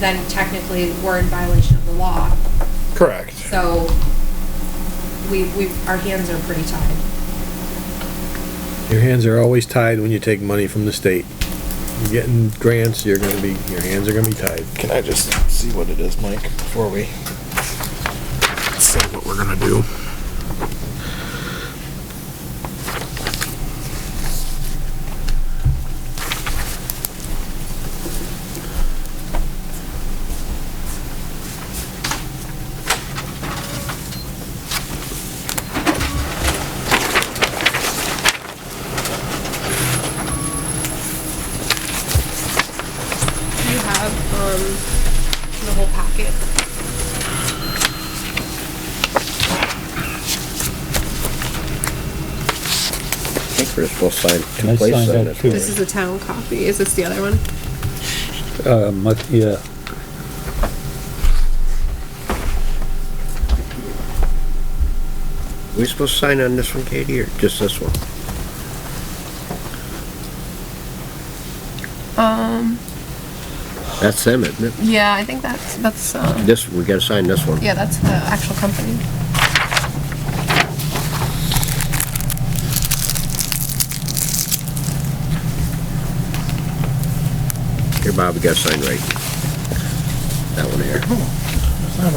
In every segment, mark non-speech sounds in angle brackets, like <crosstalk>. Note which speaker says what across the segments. Speaker 1: then technically we're in violation of the law.
Speaker 2: Correct.
Speaker 1: So we, we, our hands are pretty tied.
Speaker 3: Your hands are always tied when you take money from the state. You're getting grants, you're gonna be, your hands are gonna be tied.
Speaker 2: Can I just see what it is, Mike, before we say what we're gonna do?
Speaker 1: You have, um, the whole packet.
Speaker 4: I think we're supposed to sign
Speaker 5: I
Speaker 4: two places
Speaker 5: signed
Speaker 4: on
Speaker 5: up
Speaker 4: this.
Speaker 5: too.
Speaker 4: one.
Speaker 1: This is the town copy. Is this the other one?
Speaker 5: Uh, much, yeah.
Speaker 4: We supposed to sign on this one, Katie, or just this one?
Speaker 6: Um,
Speaker 4: That's them, isn't it?
Speaker 6: yeah, I think that's, that's, uh,
Speaker 4: This, we gotta sign this one.
Speaker 6: yeah, that's the actual company.
Speaker 4: Here, Bob, we gotta sign right. That one here.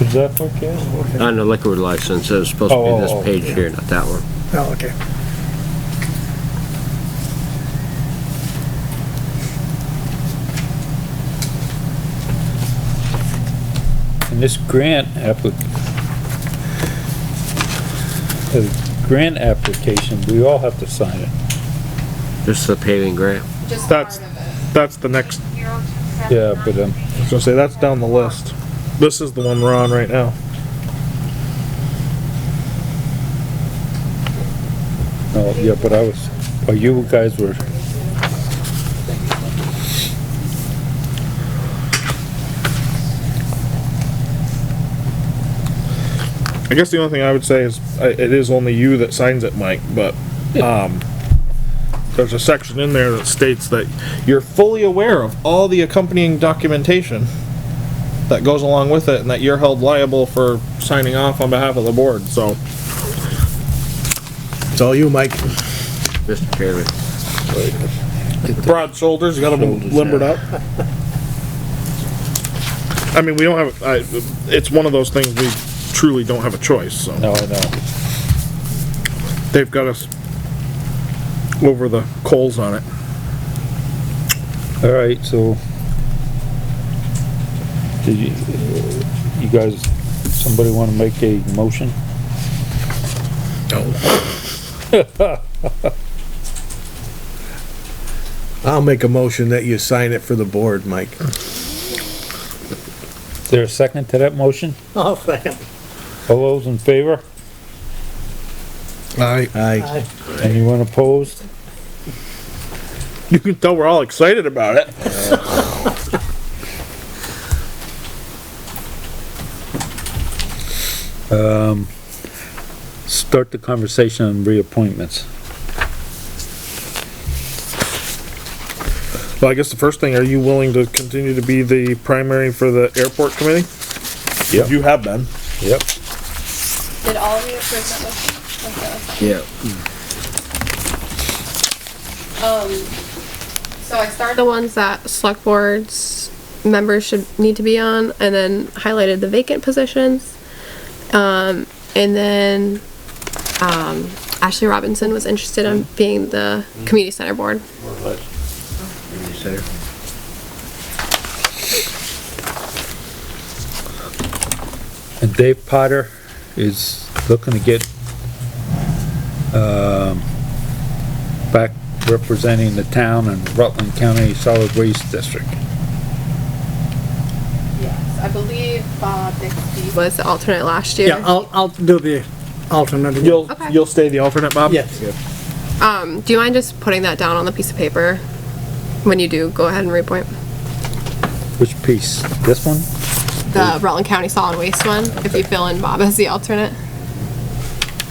Speaker 5: Is that for Ken?
Speaker 4: On the liquor license, it's supposed to be
Speaker 5: Oh, oh,
Speaker 4: this page here, not that one.
Speaker 2: Oh, okay.
Speaker 5: And this grant applic, the grant application, we all have to sign it.
Speaker 4: This is the paving grant.
Speaker 1: Just part
Speaker 2: That's-
Speaker 1: of it.
Speaker 2: That's the next,
Speaker 5: Yeah, but, um,
Speaker 2: I was gonna say, that's down the list. This is the one we're on right now.
Speaker 5: no, yeah, but I was, oh, you guys were,
Speaker 2: I guess the only thing I would say is, I- it is only you that signs it, Mike, but, um, there's a section in there that states that you're fully aware of all the accompanying documentation that goes along with it, and that you're held liable for signing off on behalf of the board, so.
Speaker 3: It's all you, Mike.
Speaker 4: Mr. Chairman,
Speaker 2: broad shoulders, you got them limbered up. I mean, we don't have, I, it's one of those things we truly don't have a choice, so
Speaker 5: no, I know.
Speaker 2: they've got us over the coals on it.
Speaker 5: All right, so. Did you, you guys, somebody wanna make a motion?
Speaker 3: <laughs> I'll make a motion that you sign it for the board, Mike.
Speaker 5: Is there a second to that motion?
Speaker 7: Oh, second.
Speaker 5: All those in favor?
Speaker 3: Aye. Aye.
Speaker 7: Aye.
Speaker 5: Anyone opposed?
Speaker 2: <laughs> You can tell we're all excited about it.
Speaker 5: Start the conversation on reappointments.
Speaker 2: Well, I guess the first thing, are you willing to continue to be the primary for the airport committee?
Speaker 5: Yep.
Speaker 2: You have been.
Speaker 5: Yep.
Speaker 1: Did all of you approve that motion? Okay.
Speaker 4: yeah,
Speaker 1: Um, so I started.
Speaker 6: The ones that select boards members should need to be on, and then highlighted the vacant positions. Um, and then, um, Ashley Robinson was interested in being the community center board.
Speaker 4: you said it.
Speaker 5: And Dave Potter is looking to get, um, back representing the town and Rutland County Solid Waste District.
Speaker 1: Yes, I believe uh, Bob Bixby
Speaker 6: Was the alternate last year.
Speaker 7: Yeah, I'll, I'll do the alternate. again.
Speaker 2: You'll,
Speaker 6: Okay.
Speaker 2: you'll stay the alternate, Bob?
Speaker 7: Yes.
Speaker 6: Um, do you mind just putting that down on the piece of paper? When you do, go ahead and reappoint.
Speaker 5: Which piece? This one?
Speaker 6: The Rutland County Solid Waste one, if you fill in Bob as the alternate.